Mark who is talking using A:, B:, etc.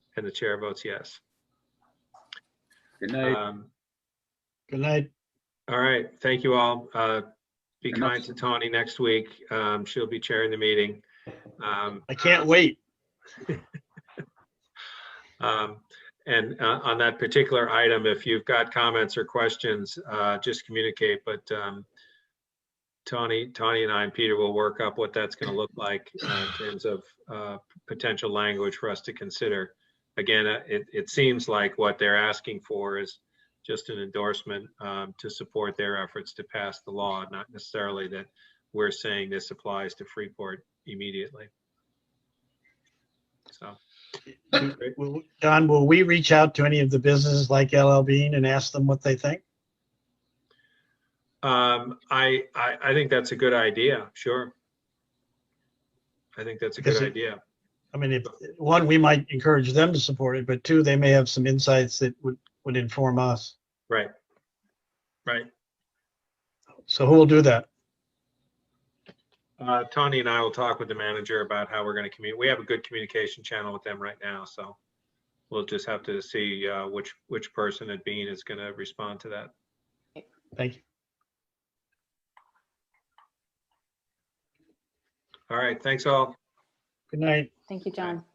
A: and the chair votes yes.
B: Good night.
A: Um,
C: Good night.
A: All right, thank you all. Uh, Be
B: Good night.
A: kind to Tawny next week. Um, She'll be chairing the meeting. Um,
C: I can't wait.
A: um, And uh, on that particular item, if you've got comments or questions, uh, just communicate, but um, Tawny, Tawny and I and Peter will work up what that's going to look like uh, in terms of uh, potential language for us to consider. Again, uh, it, it seems like what they're asking for is just an endorsement um, to support their efforts to pass the law, not necessarily that we're saying this applies to Freeport immediately. So,
C: Will- Don, will we reach out to any of the businesses like LL Bean and ask them what they think?
A: um, I, I, I think that's a good idea, sure. I think that's a good
C: Is it-
A: idea.
C: I mean, if, one, we might encourage them to support it, but two, they may have some insights that would, would inform us.
A: Right. Right.
C: So who will do that?
A: Uh, Tawny and I will talk with the manager about how we're going to communicate. We have a good communication channel with them right now, so we'll just have to see uh, which, which person at Bean is going to respond to that.
C: Thank you.
A: All right, thanks all.
C: Good night.
D: Thank you, John.